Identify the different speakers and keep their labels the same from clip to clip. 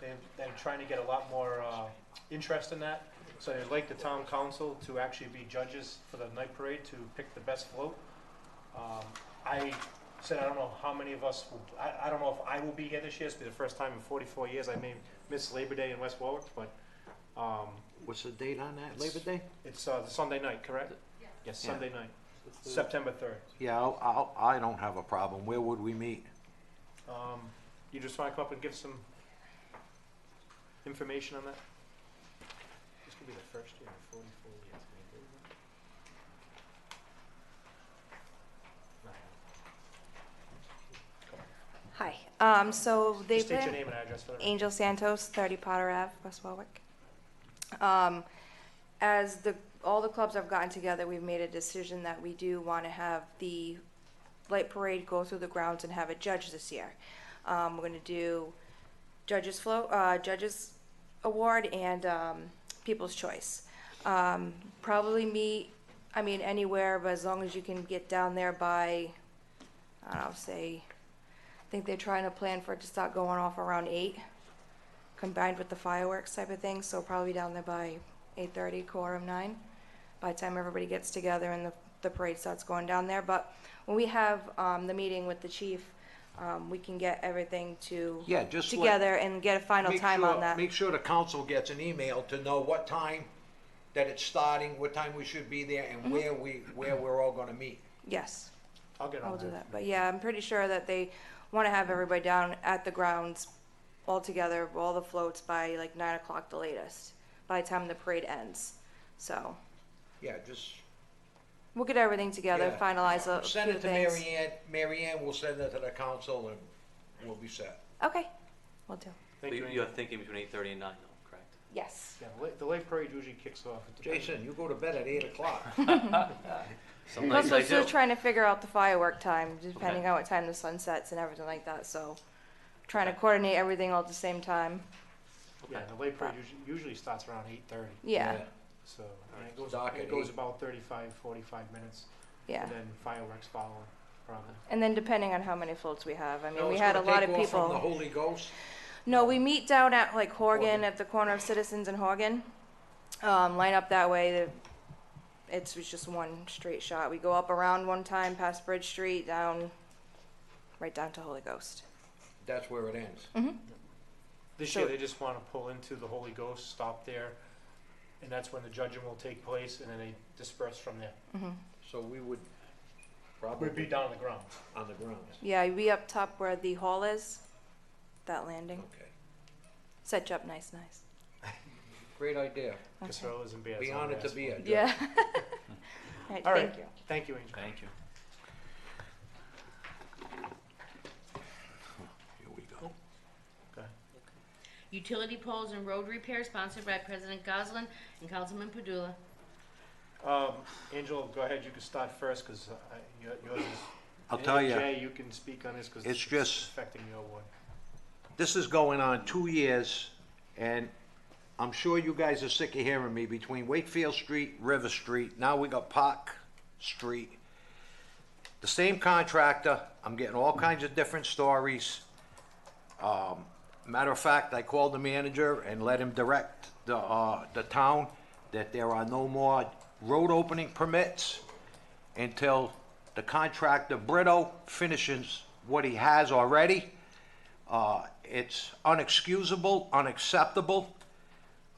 Speaker 1: they're, they're trying to get a lot more, uh, interest in that. So they'd like the town council to actually be judges for the night parade to pick the best float. Um, I said, I don't know how many of us, will I, I don't know if I will be here this year, it's be the first time in forty-four years, I may miss Labor Day in West Warwick, but, um,
Speaker 2: What's the date on that, Labor Day?
Speaker 1: it's, uh, Sunday night, correct? Yes,
Speaker 2: Yeah.
Speaker 1: Sunday night, September third.
Speaker 2: Yeah, I'll, I'll, I don't have a problem. Where would we meet?
Speaker 1: Um, you just wanna come up and give some information on that? This could be the first year in forty-four years, maybe.
Speaker 3: Hi, um, so they
Speaker 1: Just state your
Speaker 3: plan,
Speaker 1: name and address for the record.
Speaker 3: Angel Santos, thirty Potter Ave, West Warwick. Um, as the, all the clubs have gotten together, we've made a decision that we do wanna have the light parade go through the grounds and have a judge this year. Um, we're gonna do judges flow, uh, judges award and, um, people's choice. Um, probably meet, I mean, anywhere, but as long as you can get down there by, I don't know, say, I think they're trying to plan for it to start going off around eight, combined with the fireworks type of thing, so probably down there by eight thirty, quarter of nine, by the time everybody gets together and the, the parade starts going down there, but when we have, um, the meeting with the chief, um, we can get everything to
Speaker 2: Yeah, just let-
Speaker 3: together and get a final
Speaker 2: Make
Speaker 3: time
Speaker 2: sure-
Speaker 3: on that.
Speaker 2: Make sure the council gets an email to know what time that it's starting, what time we should be there,
Speaker 3: Mm-hmm.
Speaker 2: and where we, where we're all gonna meet.
Speaker 3: Yes,
Speaker 1: I'll get
Speaker 3: I'll
Speaker 1: on
Speaker 3: do
Speaker 1: that.
Speaker 3: that, but yeah, I'm pretty sure that they wanna have everybody down at the grounds all together, all the floats by like nine o'clock the latest, by the time the parade ends, so.
Speaker 2: Yeah, just.
Speaker 3: We'll get everything together,
Speaker 2: yeah.
Speaker 3: finalize
Speaker 2: Send
Speaker 3: a Oh, few
Speaker 2: it to
Speaker 3: things.
Speaker 2: Mary Ann, Mary Ann will send it to the council and we'll be set.
Speaker 3: Okay, will do.
Speaker 1: Thank you,
Speaker 4: You're
Speaker 1: Angel.
Speaker 4: thinking between eight thirty and nine, though, correct?
Speaker 3: Yes.
Speaker 1: Yeah, the late- the late parade usually kicks off. at the-
Speaker 2: Jason, you go to bed at eight o'clock.
Speaker 4: Some
Speaker 3: Plus,
Speaker 4: nights I
Speaker 3: we're still
Speaker 4: do.
Speaker 3: trying to figure out the firework time, depending on what time the sun sets and everything like that, so. Trying to
Speaker 4: Okay.
Speaker 3: coordinate everything all at the same time,
Speaker 1: Yeah, the late parade usually, usually starts around eight thirty,
Speaker 3: yeah,
Speaker 1: so, and it
Speaker 4: Alright,
Speaker 1: goes,
Speaker 2: dark
Speaker 1: it
Speaker 2: at
Speaker 1: goes
Speaker 2: eight.
Speaker 1: about 35, 45 minutes.
Speaker 3: yeah.
Speaker 1: And then fireworks follow, probably.
Speaker 3: And then depending on how many floats we have, I mean,
Speaker 2: No,
Speaker 3: we
Speaker 2: it's
Speaker 3: had a
Speaker 2: gonna
Speaker 3: lot
Speaker 2: take
Speaker 3: of
Speaker 2: off From the
Speaker 3: people.
Speaker 2: Holy Ghost,
Speaker 3: No, we meet down at like
Speaker 2: Horgan.
Speaker 3: Horgan, at the corner of Citizens and Horgan. Um, line up that way, the- it's, it's just one straight shot. We go up around one time, past Bridge Street, down, right down to Holy Ghost.
Speaker 2: that's where it ends.
Speaker 3: Mm-hmm.
Speaker 1: This
Speaker 3: So-
Speaker 1: year, they just wanna pull into the Holy Ghost, stop there, and that's when the judging will take place, and then they disperse from there.
Speaker 2: So we would
Speaker 1: We'd be
Speaker 2: probably
Speaker 1: down on the ground.
Speaker 2: on the grounds.
Speaker 3: Yeah, we up top where the hall is, that landing.
Speaker 2: Okay,
Speaker 3: Set you up nice, nice.
Speaker 2: great idea.
Speaker 1: Caserolas and beers.
Speaker 2: Be
Speaker 1: on
Speaker 2: honored
Speaker 1: the
Speaker 2: to be
Speaker 1: asphalt.
Speaker 2: a judge.
Speaker 3: Yeah. All right,
Speaker 1: All right.
Speaker 3: thank you.
Speaker 1: Thank you, Angel.
Speaker 4: Thank you.
Speaker 2: Here we go.
Speaker 1: Okay.
Speaker 5: Utility poles and road repair sponsored by President Goslin and Councilman Padula.
Speaker 1: Um, Angel, go ahead, you can start first, cause I, your- yours is.
Speaker 2: I'll tell
Speaker 1: and
Speaker 2: ya.
Speaker 1: Jay, you can speak on this, cause.
Speaker 2: It's just-
Speaker 1: Affecting your award.
Speaker 2: this is going on two years, and I'm sure you guys are sick of hearing me, between Wakefield Street, River Street, now we got Park Street. The same contractor, I'm getting all kinds of different stories. Um, matter of fact, I called the manager and let him direct the, uh, the town that there are no more road opening permits until the contractor Brito finishes what he has already. Uh, It's unexcusable, unacceptable.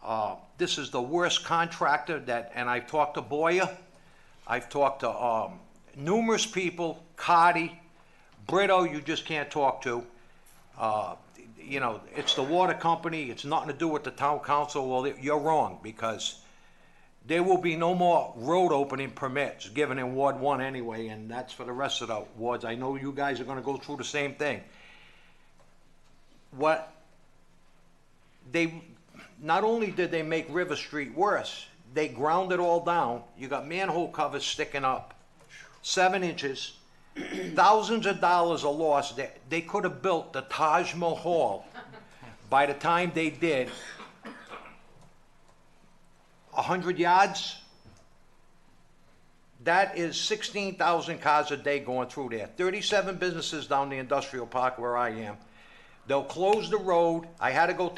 Speaker 2: Uh, This is the worst contractor that, and I've talked to Boyer, I've talked to um, numerous people, Cotty, Brito, you just can't talk to. Uh, You know, it's the water company, it's nothing to do with the town council, well, you're wrong, because there will be no more road opening permits given in Ward One anyway, and that's for the rest of the wards. I know you guys are gonna go through the same thing what they not only did they make River Street worse, they ground it all down. You got manhole covers sticking up, seven inches. Thousands of dollars are lost. They, they could have built the Taj Mahal by the time they did. A hundred yards. That is sixteen thousand cars a day going through there. Thirty-seven businesses down the industrial park where I am. They'll close the road. I had to go